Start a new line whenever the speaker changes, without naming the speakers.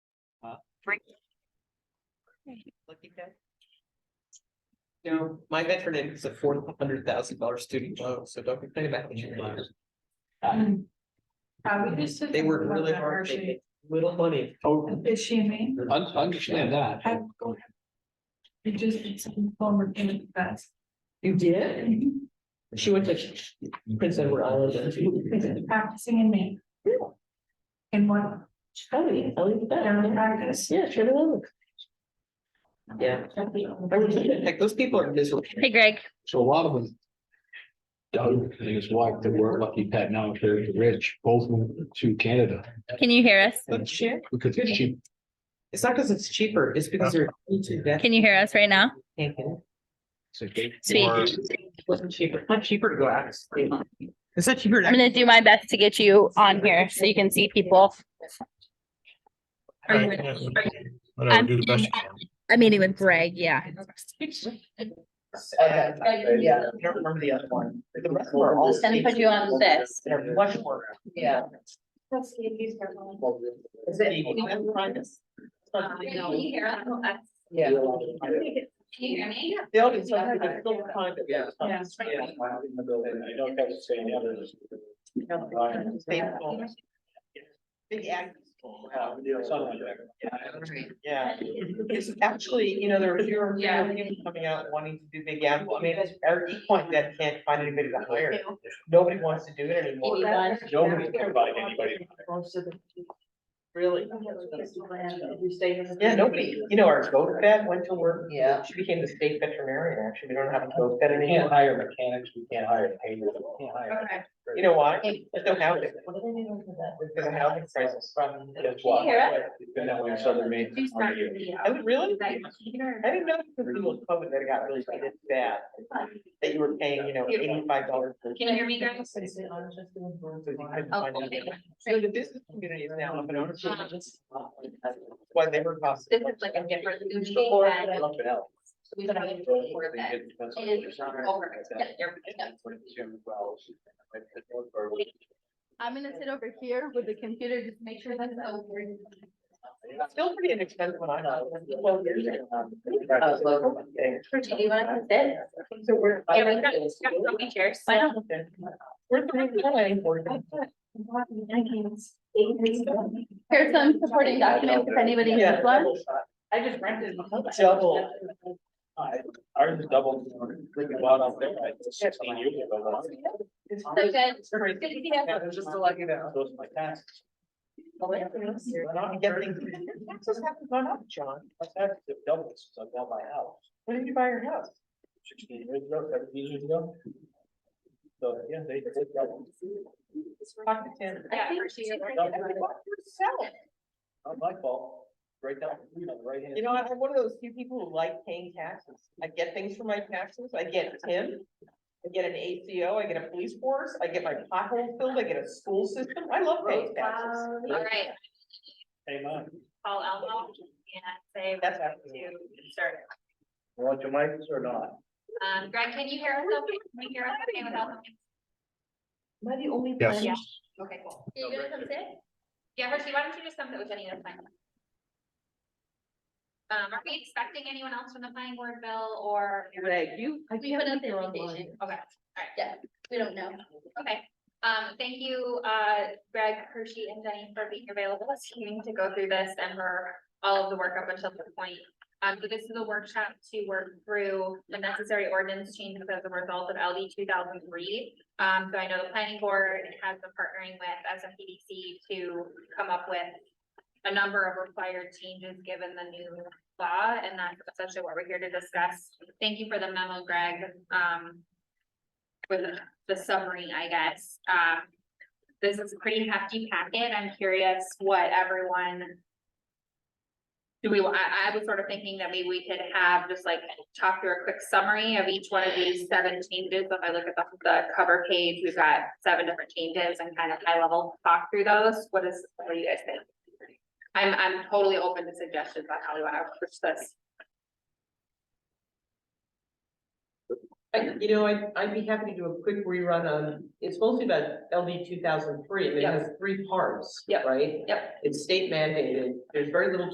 Looking good. You know, my veteran aid is a four hundred thousand dollar student loan, so don't complain about what you're doing. Uh,
Uh, we just. said
They work
about
really
that,
hard,
or
they
she-
get little money.
Oh,
Is she and me?
un- understand that.
I go ahead. We just did some former payment best.
You did? She went to Prince Edward Island. didn't she?
Practicing in me. In one,
Ellie, Ellie,
down in
that.
practice.
Yeah, she had a look. Yeah. I was thinking, Heck, those people are miserable.
Hey Greg,
So a lot of them. Doug and his wife that were lucky Pat now they're rich, both moved to Canada
can you hear us?
But shit,
because it's cheap.
It's not because it's cheaper, it's because they're.
Can you hear us right now?
Taken.
so they-
Speak.
or-
It wasn't cheaper, it's not cheaper to go out. of state. It's not cheaper. to-
I'm gonna do my best to get you on here so you can see people. Are you-
Right, yeah.
are you-
Whatever,
I'm-
do the best you can.
I'm meeting with Greg,
Uh,
yeah.
Yeah, I don't remember the other one. The rest were all.
Just gonna put you on this.
They're much more. Yeah. Is it? Yeah. They all get something, but it's still kind of- Yeah.
Yeah.
Faithful. Big act. Yeah. It's actually, you know, there was, you're,
Yeah.
coming out wanting to do big apple. I mean, it's our point that can't find anybody to hire. Nobody wants to do it anymore.
Nobody
cares about anybody. Really? Yeah, nobody, you know, our goat vet went to work. Yeah. She became the state veterinarian, actually. We don't have a goat vet anymore.
hire mechanics, we can't hire painters. we can't hire-
Okay.
You know why? There's no housing. There's a housing crisis from.
That's why.
Can you hear
It's been that way in Southern Maine. for 100 years.
I would really, I didn't know this little COVID that got really bad, that you were paying, you know, eighty-five dollars. for
you hear me,
So the business community is now up in arms. Why they were cost.
Uh-huh. This is like a different movie
Before,
than-
I loved it out.
We don't have to record that. It is over. Yeah, you're- yeah. I'm gonna sit over here with the computer, just make sure that's over.
It's Still pretty inexpensive when I know. Well, years ago.
Uh,
Do you wanna sit?
So we're.
Yeah, we got- we got so many chairs.
I know. We're three.
Here's some supporting documents if anybody needs one.
I just rented.
Double. Ours is double. We can go out on there, like, six, seven years ago, but-
So good.
Yeah, it was just to let you know.
Those are my taxes.
Just haven't gone up, John.
My taxes have doubled since I bought my house.
When did you buy your house?
sixteen years ago, seventeen years ago. So, yeah, they, they got
Talk to Tim.
I think she-
not my fault, right down, you know, right hand.
You know, I'm one of those few people who like paying taxes. I get things for my taxes. I get Tim. I get an ACO, I get a police force, I get my pothole filled, I get a school system. I love paying taxes.
All right,
Hey, man,
call Elmo and say
That's
to
actually.
start.
you want your mics or not?
Um, Greg, can you hear us? okay? Can you hear us okay without? the-
Am I the only?
Yes.
plan-
Yeah. Okay, cool. Are you gonna come sit? Yeah, Hershey, why don't you just come sit with Jenny and planning? Um, are we expecting anyone else from the planning board, Bill, or?
Greg, you. I
We
can't
put
believe
out the
you're
invitation.
online.
Okay, alright. Yeah, we don't know. Okay, um, thank you, uh, Greg, Hershey and Jenny for being available this evening to go through this and for all of the work up until this point. Um, so this is a workshop to work through the necessary ordinance changes as a result of LD two thousand three. Um, so I know the planning board has been partnering with SMPDC to come up with a number of required changes given the new law, and that's essentially what we're here to discuss. Thank you for the memo, Greg, um, with the summary, I guess. Um, this is a pretty hefty packet. I'm curious what everyone do we, I, I was sort of thinking that maybe we could have just like talk through a quick summary of each one of these seven changes. If I look at the, the cover page, we've got seven different changes and kind of high level talk through those. What is, what do you guys think? I'm, I'm totally open to suggestions on how we want to approach this.
I, you know, I'd, I'd be happy to do a quick rerun on, it's mostly about LD two thousand three, I mean, it
Yep.
has three parts,
Yep.
right?
Yep.
It's state mandated, there's very little